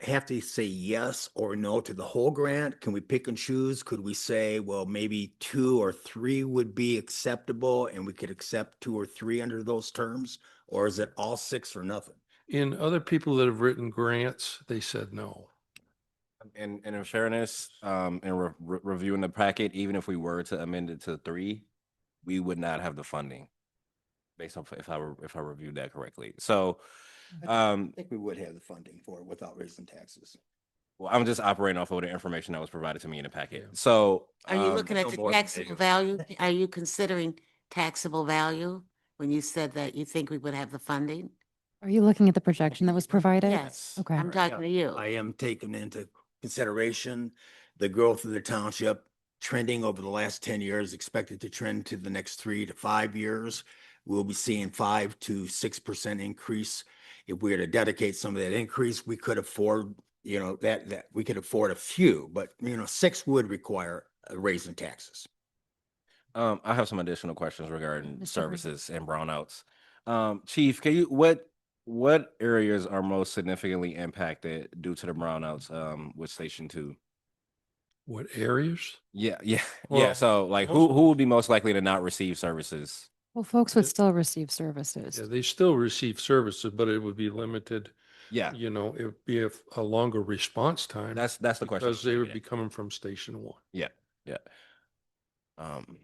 have to say yes or no to the whole grant? Can we pick and choose? Could we say, well, maybe two or three would be acceptable and we could accept two or three under those terms? Or is it all six or nothing? In other people that have written grants, they said no. And, and in fairness, um, and re- re- reviewing the packet, even if we were to amend it to three, we would not have the funding. Based off if I, re- if I reviewed that correctly. So, um, think we would have the funding for it without raising taxes. well, I'm just operating off of the information that was provided to me in the packet. Yeah. So. Are you um, looking at so the board- taxable value? Are you considering taxable value when you said that you think we would have the funding? Are you looking at the projection that was provided? Yes, Okay. I'm talking to you. I am taking into consideration the growth of the township trending over the last ten years, expected to trend to the next three to five years. We'll be seeing five to six percent increase. If we were to dedicate some of that increase, we could afford, you know, that, that, we could afford a few, but, you know, six would require a raise in taxes. Um, I have some additional questions regarding Mr. Hurd. services and brownouts. Um, Chief, can you, what, what areas are most significantly impacted due to the brownouts, um, with Station Two? What areas? Yeah, yeah, yeah. Well, So like most- who who would be most likely to not receive services? Well, folks would Yeah. still receive services. Yeah, they still receive services, but it would be limited, Yeah. you know, it would be a, a longer response time. That's that's the question. Because they would Yeah, be coming from station one. yeah. Um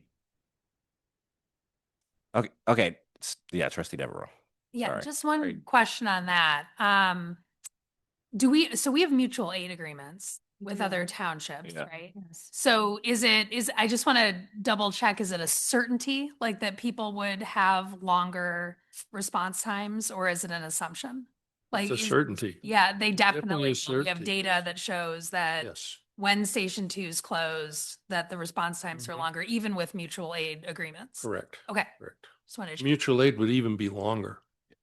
Okay, okay. s- Yeah, trustee Devereaux. Yeah, Sorry. just one Great. question on that. Um, do we, so we have mutual aid agreements with other townships, Yeah. right? Yes. So is it, is, I just want to double check, is it a certainty, like that people would have longer response times or is it an assumption? Like, It's a is- certainty. yeah, they definitely definitely, a will. we have certainty. data that shows that Yes. when station two is closed, that the response times are Mhm. longer, even with mutual aid agreements. Correct. Okay, Correct. just wanted to, Mutual aid would even be longer.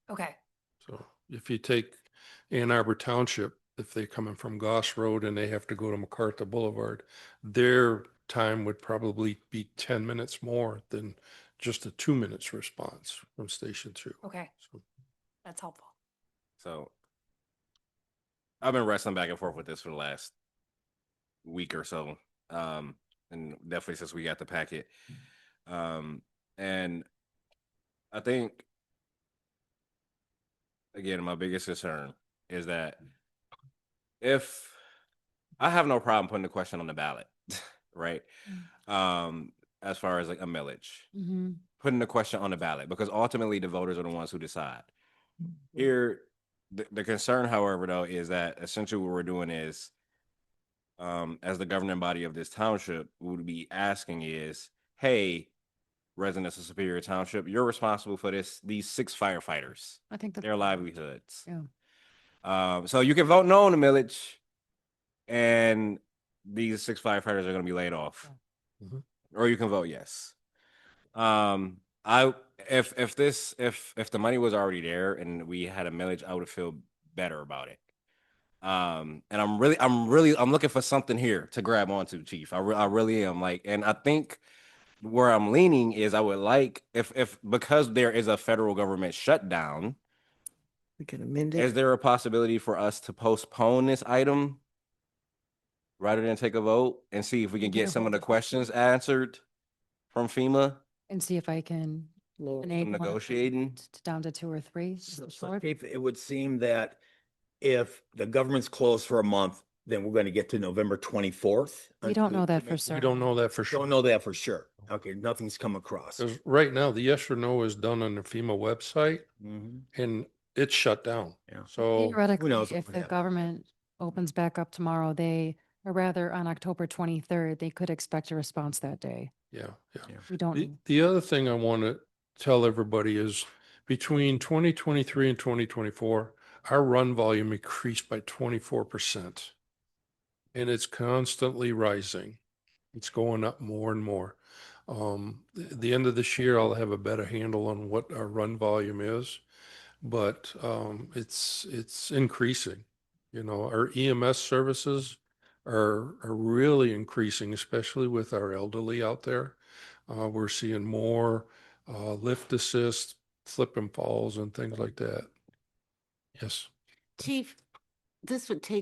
okay. So if you take Ann Arbor Township, if they're coming from Goss Road and they have to go to MacArthur Boulevard, their time would probably be ten minutes more than just a two minutes response from station two. Okay, So that's helpful. So I've been wrestling back and forth with this for the last week or so. Um, and definitely since we got the packet. Um, and I think again, my biggest concern is that if I have no problem putting the question on the ballot, right? Um, as far as like a millage Mm-hmm. putting the question on the ballot because ultimately the voters are the ones who decide. Here, the, the concern, however, though, is that essentially what we're doing is, um, as the governing body of this township, we would be asking is, hey, residents of Superior Township, you're responsible for this, these six firefighters, I think that. their livelihoods. Yeah. Um, so you can vote no on the millage, and these six firefighters are going to be laid off, Mhm. or you can vote yes. Um, I if if this if if the money was already there and we had a millage, I would feel better about it. Um, and I'm really, I'm really, I'm looking for something here to grab onto, Chief. I, re- I really am. Like, and I think where I'm leaning is I would like if if because there is a federal government shutdown. We can amend Is it. there a possibility for us to postpone this item? Rather than take a vote and see if we can Get get a some of hold the of them. questions answered from FEMA? And see if I can. Lord. eliminate one of them negotiating. t- Down to two or three. Is So- that so short? Keith, it would seem that if the government's closed for a month, then we're going to get to November twenty-fourth. We don't know that for We certain. don't know that for sure. Don't know that for sure. Okay, nothing's come across. Because right now, the yes or no is done on the FEMA website Mhm. and it's shut down. Yeah. So Theoretically, knows what if would the happen. government opens back up tomorrow, they, or rather on October twenty-third, they could expect a response that day. yeah, yeah. We don't. The, know. the other thing I want to tell everybody is between 2023 and 2024, our run volume increased by 24%. And it's constantly rising. It's going up more and more. Um, th- the end of this year, I'll have a better handle on what our run volume is, but um, it's it's increasing. You know, our EMS services are are really increasing, especially with our elderly out there. Uh, we're seeing more uh, lift assist, flip and falls, and things like that. Yes. Chief, this would take